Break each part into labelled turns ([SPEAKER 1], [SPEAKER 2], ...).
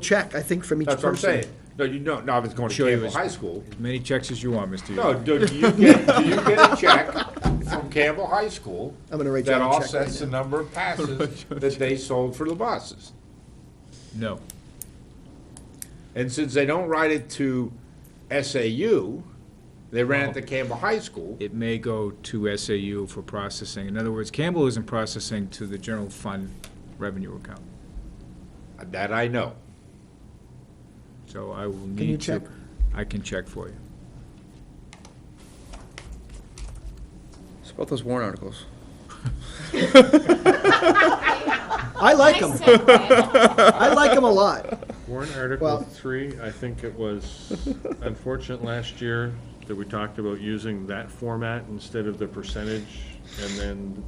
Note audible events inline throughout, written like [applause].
[SPEAKER 1] check, I think, from each
[SPEAKER 2] That's what I'm
[SPEAKER 1] person.
[SPEAKER 2] saying. No, you don't, no, if it's going to
[SPEAKER 3] Sure he
[SPEAKER 2] Campbell
[SPEAKER 3] was-
[SPEAKER 1] [laughs]
[SPEAKER 2] High School.
[SPEAKER 3] As many checks as you want, Mr.
[SPEAKER 2] No,
[SPEAKER 3] Yule.
[SPEAKER 2] do you get, do you get a check from Campbell High School?
[SPEAKER 1] I'm gonna write John a check
[SPEAKER 2] That offsets
[SPEAKER 1] right
[SPEAKER 2] the
[SPEAKER 1] [laughs]
[SPEAKER 2] number of passes that they sold for the buses.
[SPEAKER 3] No.
[SPEAKER 2] And since they don't write it to SAU, they ran
[SPEAKER 1] Oh.
[SPEAKER 2] it to Campbell High School.
[SPEAKER 3] It may go to SAU for processing. In other words, Campbell isn't processing to the general fund revenue account.
[SPEAKER 2] That I know.
[SPEAKER 3] So I will need to.
[SPEAKER 1] you check?
[SPEAKER 3] I can check for you. [laughs]
[SPEAKER 4] It's about those warrant articles.
[SPEAKER 1] I like them.
[SPEAKER 5] Nice segue.
[SPEAKER 1] [laughs] I like them a lot.
[SPEAKER 6] Warrant
[SPEAKER 1] Well-
[SPEAKER 6] Article Three, I think it was unfortunate last year that we talked about using that format instead of the percentage. And then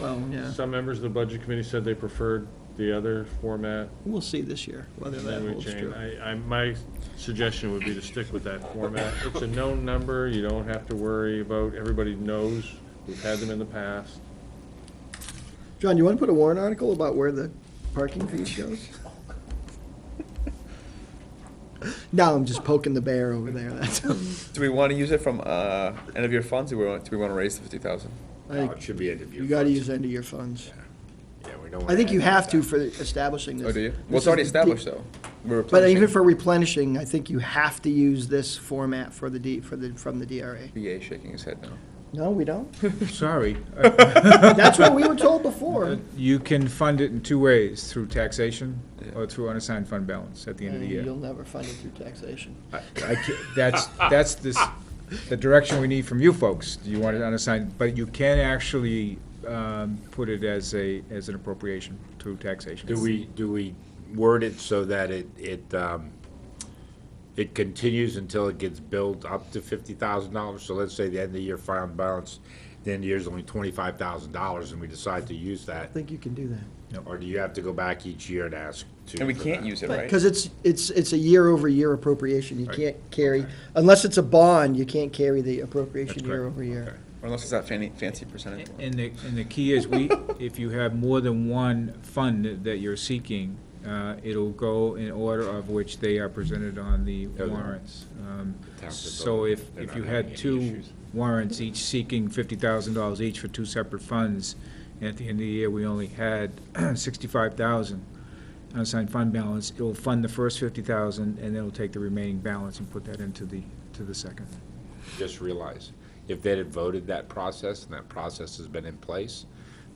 [SPEAKER 7] Well, yeah,
[SPEAKER 6] some members of the Budget Committee said they preferred the other format.
[SPEAKER 7] we'll see this year whether
[SPEAKER 6] and
[SPEAKER 7] that
[SPEAKER 6] then we
[SPEAKER 7] holds
[SPEAKER 6] changed.
[SPEAKER 7] true.
[SPEAKER 6] I, I, my suggestion would be to stick with that format. It's a known number, you don't have to worry about, everybody knows, we've had them in the past.
[SPEAKER 1] John, you want to put a warrant article about where the parking fees goes? No, I'm just poking the bear over there, that's,
[SPEAKER 4] Do we want to use it from uh, end of year funds? Do we want, do we want to raise the fifty thousand?
[SPEAKER 1] I-
[SPEAKER 2] No, It should be end of year.
[SPEAKER 1] you gotta
[SPEAKER 2] funds.
[SPEAKER 1] use end of year funds.
[SPEAKER 2] Yeah, we don't wanna
[SPEAKER 1] I think
[SPEAKER 2] add
[SPEAKER 1] you
[SPEAKER 2] that
[SPEAKER 1] have
[SPEAKER 2] back.
[SPEAKER 1] to for establishing this.
[SPEAKER 4] Oh, do you?
[SPEAKER 1] This
[SPEAKER 4] Well, it's
[SPEAKER 1] is
[SPEAKER 4] already
[SPEAKER 1] the-
[SPEAKER 4] established though. We're
[SPEAKER 1] But uh, even
[SPEAKER 4] replenishing.
[SPEAKER 1] for replenishing, I think you have to use this format for the D, for the, from the DRA.
[SPEAKER 4] BA shaking his head now.
[SPEAKER 1] No, we don't.
[SPEAKER 3] Sorry. Uh,
[SPEAKER 1] That's what we were told before.
[SPEAKER 3] You can fund it in two ways, through taxation or through unassigned fund balance at the end of the
[SPEAKER 1] And Uh, You'll
[SPEAKER 3] year.
[SPEAKER 1] never fund it through taxation.
[SPEAKER 3] I ca- That's, that's this, the direction we need from you folks. You want it unassigned, but you can actually um, put it as a, as an appropriation through taxation.
[SPEAKER 2] Do we, do we word it so that it, it, um, it continues until it gets billed up to fifty thousand dollars? So let's say the end of the year fund balance, the end of the year is only twenty-five thousand dollars and we decide to use that.
[SPEAKER 1] I think you can do that.
[SPEAKER 2] Or do you have to go back each year and ask to?
[SPEAKER 4] And we
[SPEAKER 2] for
[SPEAKER 4] can't
[SPEAKER 2] that?
[SPEAKER 4] use it, right?
[SPEAKER 1] Because it's, it's, it's a year-over-year appropriation. You can't carry, unless it's a bond, you can't carry the appropriation
[SPEAKER 3] That's correct.
[SPEAKER 1] year-over-year.
[SPEAKER 4] Unless it's that fancy, fancy percentage. one.
[SPEAKER 3] And the, and the key
[SPEAKER 2] [laughs]
[SPEAKER 3] is, we, if you have more than one fund that you're seeking, uh, it'll go in order of which they are presented on the
[SPEAKER 2] they're-
[SPEAKER 3] warrants. Um,
[SPEAKER 2] towns are
[SPEAKER 3] So
[SPEAKER 2] building,
[SPEAKER 3] if,
[SPEAKER 2] they're
[SPEAKER 3] if
[SPEAKER 2] not
[SPEAKER 3] you
[SPEAKER 2] having
[SPEAKER 3] had
[SPEAKER 2] any
[SPEAKER 3] two
[SPEAKER 2] issues.
[SPEAKER 3] warrants, each seeking fifty thousand dollars each for two separate funds, and at the end of the year, we only had [clears throat] sixty-five thousand unassigned fund balance, it'll fund the first fifty thousand, and then it'll take the remaining balance and put that into the, to the second.
[SPEAKER 2] Just realize, if they had voted that process and that process has been in place,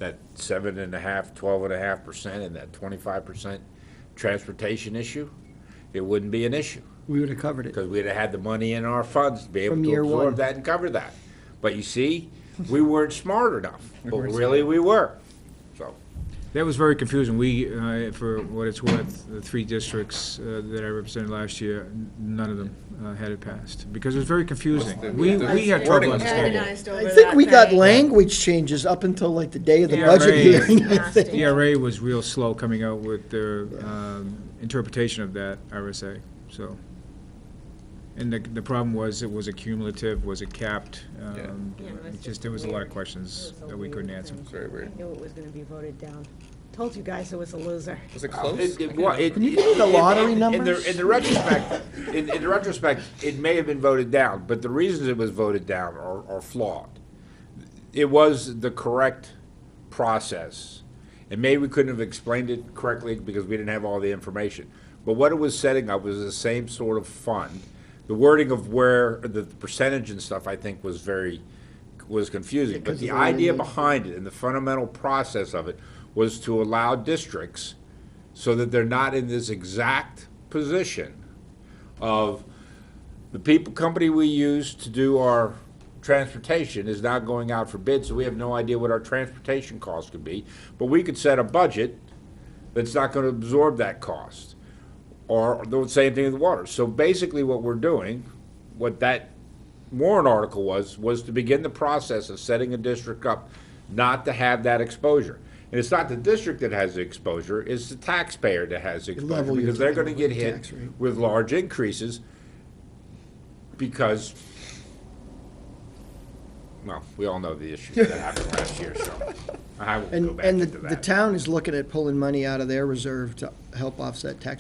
[SPEAKER 2] that seven and a half, twelve and a half percent and that twenty-five percent transportation issue, it wouldn't be an issue.
[SPEAKER 1] We would have covered it.
[SPEAKER 2] Because we'd have had the money in our funds to be able
[SPEAKER 1] From
[SPEAKER 2] to
[SPEAKER 1] year one.
[SPEAKER 2] absorb that and cover that. But you see, we weren't smart enough, but really we were, so.
[SPEAKER 3] That was very confusing. We, uh, for what it's worth, the three districts uh, that I represented last year, n- none of them uh, had it passed, because it was very confusing. We, we had trouble
[SPEAKER 4] Wording was
[SPEAKER 3] understanding.
[SPEAKER 4] horrible.
[SPEAKER 1] I think we got language changes up until like the day of the budget
[SPEAKER 3] Yeah, right.
[SPEAKER 1] hearing, I think.
[SPEAKER 3] The ERA E was real slow coming out with their um, interpretation of that RSA, so. And the, the problem was, it was accumulative, was it capped? Um,
[SPEAKER 8] Yeah, it was
[SPEAKER 3] it Just,
[SPEAKER 8] just
[SPEAKER 3] there was a lot of
[SPEAKER 8] weird.
[SPEAKER 3] questions
[SPEAKER 8] It was a
[SPEAKER 3] that we couldn't
[SPEAKER 8] weird
[SPEAKER 3] answer.
[SPEAKER 8] thing.
[SPEAKER 4] It's very weird.
[SPEAKER 8] I knew it was gonna be voted down. Told you guys it was a loser.
[SPEAKER 4] Was it close?
[SPEAKER 2] Can
[SPEAKER 1] you give me the lottery
[SPEAKER 2] In
[SPEAKER 1] numbers?
[SPEAKER 2] the, in the retrospect, in, in the retrospect, it may have been voted down, but the reasons it was voted down are, are flawed. It was the correct process, and maybe we couldn't have explained it correctly because we didn't have all the information. But what it was setting up was the same sort of fund. The wording of where, the percentage and stuff, I think, was very, was confusing.
[SPEAKER 1] Because
[SPEAKER 2] But the
[SPEAKER 1] of the way
[SPEAKER 2] idea
[SPEAKER 1] they-
[SPEAKER 2] behind it and the fundamental process of it was to allow districts so that they're not in this exact position of the people, company we use to do our transportation is not going out for bid, so we have no idea what our transportation costs could be. But we could set a budget that's not gonna absorb that cost. Or the same thing with water. So basically what we're doing, what that warrant article was, was to begin the process of setting a district up not to have that exposure. And it's not the district that has the exposure, it's the taxpayer that has the exposure,
[SPEAKER 1] Level your-
[SPEAKER 2] because they're gonna get
[SPEAKER 1] Tax
[SPEAKER 2] hit
[SPEAKER 1] rate.
[SPEAKER 2] with large increases because, well, we all know the issues that happened last year, so I will go
[SPEAKER 1] And,
[SPEAKER 2] back
[SPEAKER 1] and
[SPEAKER 2] into
[SPEAKER 1] the,
[SPEAKER 2] that.
[SPEAKER 1] the town is looking at pulling money out of their reserve to help offset tax